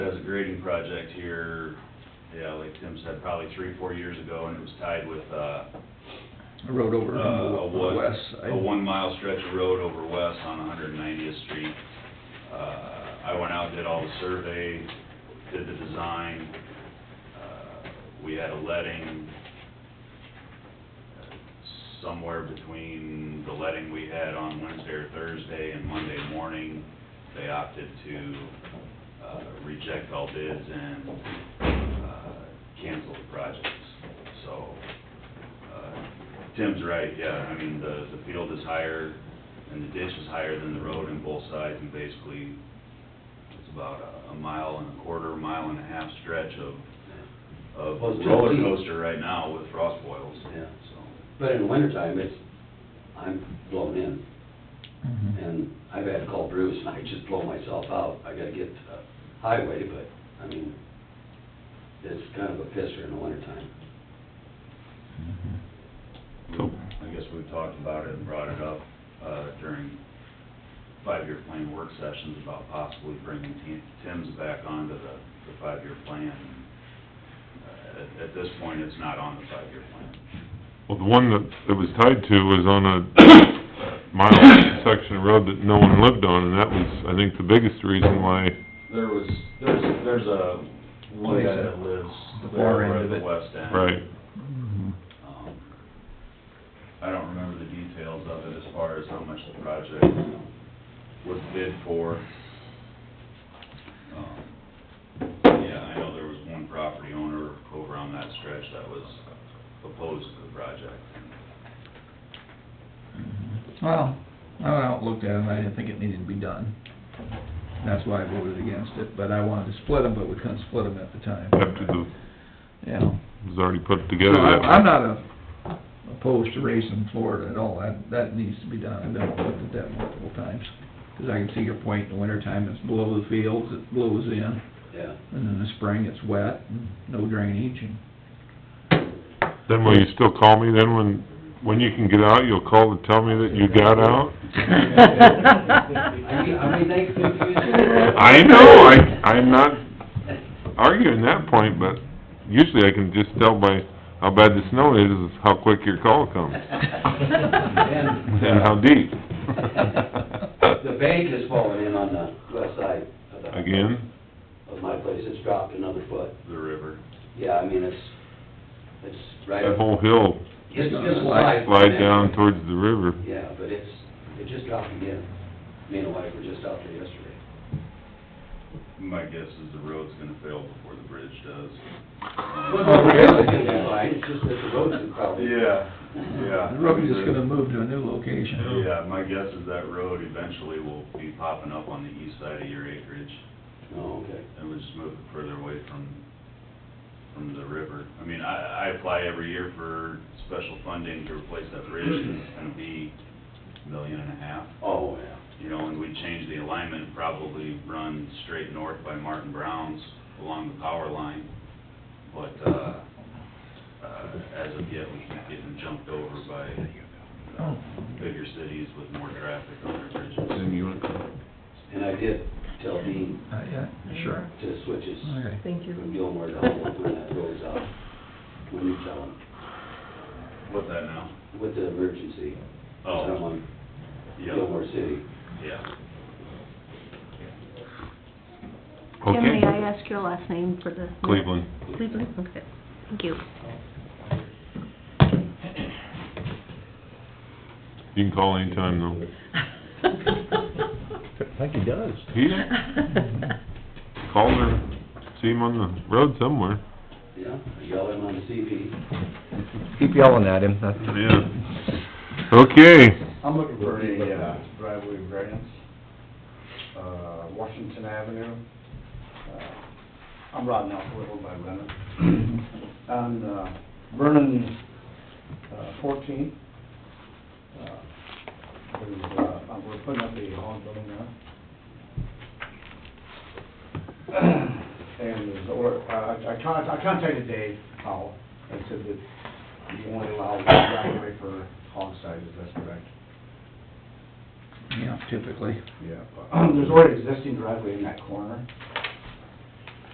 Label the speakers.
Speaker 1: a grading project here, yeah, like Tim said, probably three, four years ago, and it was tied with, uh,
Speaker 2: I rode over
Speaker 1: uh, a
Speaker 2: on the
Speaker 1: one,
Speaker 2: west side.
Speaker 1: a one-mile stretch of road over west on 190th Street. Uh, I went out, did all the survey, did the design. Uh, We had a letting uh, somewhere between the letting we had on Wednesday or Thursday and Monday morning. They opted to uh, reject all bids and uh, cancel the projects. So uh, Tim's right, yeah, I mean, the, the field is higher, and the ditch is higher than the road on both sides, and basically, it's about a- a mile and a quarter, mile and a half stretch of, of
Speaker 3: Well, it's
Speaker 1: roller
Speaker 3: too deep.
Speaker 1: coaster right now with frost boils,
Speaker 3: Yeah.
Speaker 1: so.
Speaker 3: But in the wintertime, it's, I'm blown in,
Speaker 2: Mhm.
Speaker 3: and I've had to call Bruce, and I just blow myself out. I gotta get to the highway, but, I mean, it's kind of a pisser in the wintertime.
Speaker 2: Mhm. Cool.
Speaker 1: I guess we talked about it and brought it up, uh, during five-year plan work sessions about possibly bringing Tim- Tim's back onto the, the five-year plan. Uh, At, at this point, it's not on the five-year plan.
Speaker 4: Well, the one that it was tied to was on a mile section of road that no one lived on, and that was, I think, the biggest reason why,
Speaker 1: There was, there's, there's a, one guy that lives
Speaker 2: The far
Speaker 1: there
Speaker 2: end
Speaker 1: over at
Speaker 2: of
Speaker 1: the
Speaker 2: it.
Speaker 1: west end.
Speaker 4: right,
Speaker 2: Mhm.
Speaker 1: Um, I don't remember the details of it as far as how much the project was bid for. Um, Yeah, I know there was one property owner over on that stretch that was opposed to the project.
Speaker 2: Well, I went out and looked at it, and I didn't think it needed to be done. That's why I voted against it, but I wanted to split them, but we couldn't split them at the time.
Speaker 4: after the,
Speaker 2: Yeah.
Speaker 4: it was already put together
Speaker 2: So
Speaker 4: that
Speaker 2: I'm
Speaker 4: way.
Speaker 2: I'm not a- opposed to raising Florida at all, that, that needs to be done, I've done looked at that multiple times. Because I can see your point, in the wintertime, it's below the fields, it blows in,
Speaker 3: Yeah.
Speaker 2: and in the spring, it's wet, and no drainage, and
Speaker 4: Then will you still call me then when, when you can get out, you'll call to tell me that you got out?
Speaker 3: I mean, I mean, they confuse.
Speaker 4: I know, I, I'm not arguing that point, but usually I can just tell by how bad the snow is, is how quick your call comes,
Speaker 3: And
Speaker 4: and how deep.
Speaker 3: the bank has fallen in on the west side of the.
Speaker 4: Again?
Speaker 3: Of my place, it's dropped another foot.
Speaker 1: The river.
Speaker 3: Yeah, I mean, it's, it's right.
Speaker 4: That whole hill
Speaker 3: It's just like.
Speaker 4: slide down towards the river.
Speaker 3: Yeah, but it's, it just dropped again. Me and the wife were just out there yesterday.
Speaker 1: My guess is the road's gonna fail before the bridge does.
Speaker 3: Well, the road's gonna be fine, it's just that the road's in probably.
Speaker 1: Yeah, yeah.
Speaker 2: the road is gonna move to a new location.
Speaker 1: Yeah, my guess is that road eventually will be popping up on the east side of your acreage.
Speaker 3: Oh, okay.
Speaker 1: and we just move it further away from, from the river. I mean, I, I apply every year for special funding to replace that bridge, and it's gonna be a million and a half,
Speaker 3: Oh, yeah.
Speaker 1: you know, and we change the alignment, probably run straight north by Martin Brown's along the power line, but, uh, uh, as of yet, we keep getting jumped over by
Speaker 2: Oh,
Speaker 1: uh, bigger cities with more traffic on their bridges.
Speaker 4: Then you went,
Speaker 3: And I did tell Dean
Speaker 2: Uh, yeah, sure,
Speaker 3: to switch his,
Speaker 2: okay.
Speaker 5: Thank you.
Speaker 3: from Gilmore to Humboldt when that goes out, when you tell him,
Speaker 1: What's that now?
Speaker 3: with the emergency.
Speaker 1: Oh,
Speaker 3: Someone,
Speaker 1: yeah,
Speaker 3: Gilmore City.
Speaker 1: yeah.
Speaker 5: Tim, may I
Speaker 4: okay,
Speaker 5: ask your last name for the...
Speaker 4: Cleveland.
Speaker 5: Cleveland, okay, thank you.
Speaker 4: You can call anytime though.
Speaker 6: I think he does.
Speaker 4: He called or see him on the road somewhere.
Speaker 3: Yeah, yell him on the CP.
Speaker 6: Keep yelling at him, that's...
Speaker 4: Yeah. Okay,
Speaker 7: I'm looking for a uh, driveway variance, uh, Washington Avenue. Uh, I'm riding out a little by Brennan. On uh, Vernon uh, 14, uh, there's, uh, we're putting up a hog building now. And there's, or, uh, I I con- I contacted Dave Powell and said that you only allow one driveway for hog size, is that correct?
Speaker 2: Yeah, typically.
Speaker 7: Yeah, but there's already existing driveway in that corner,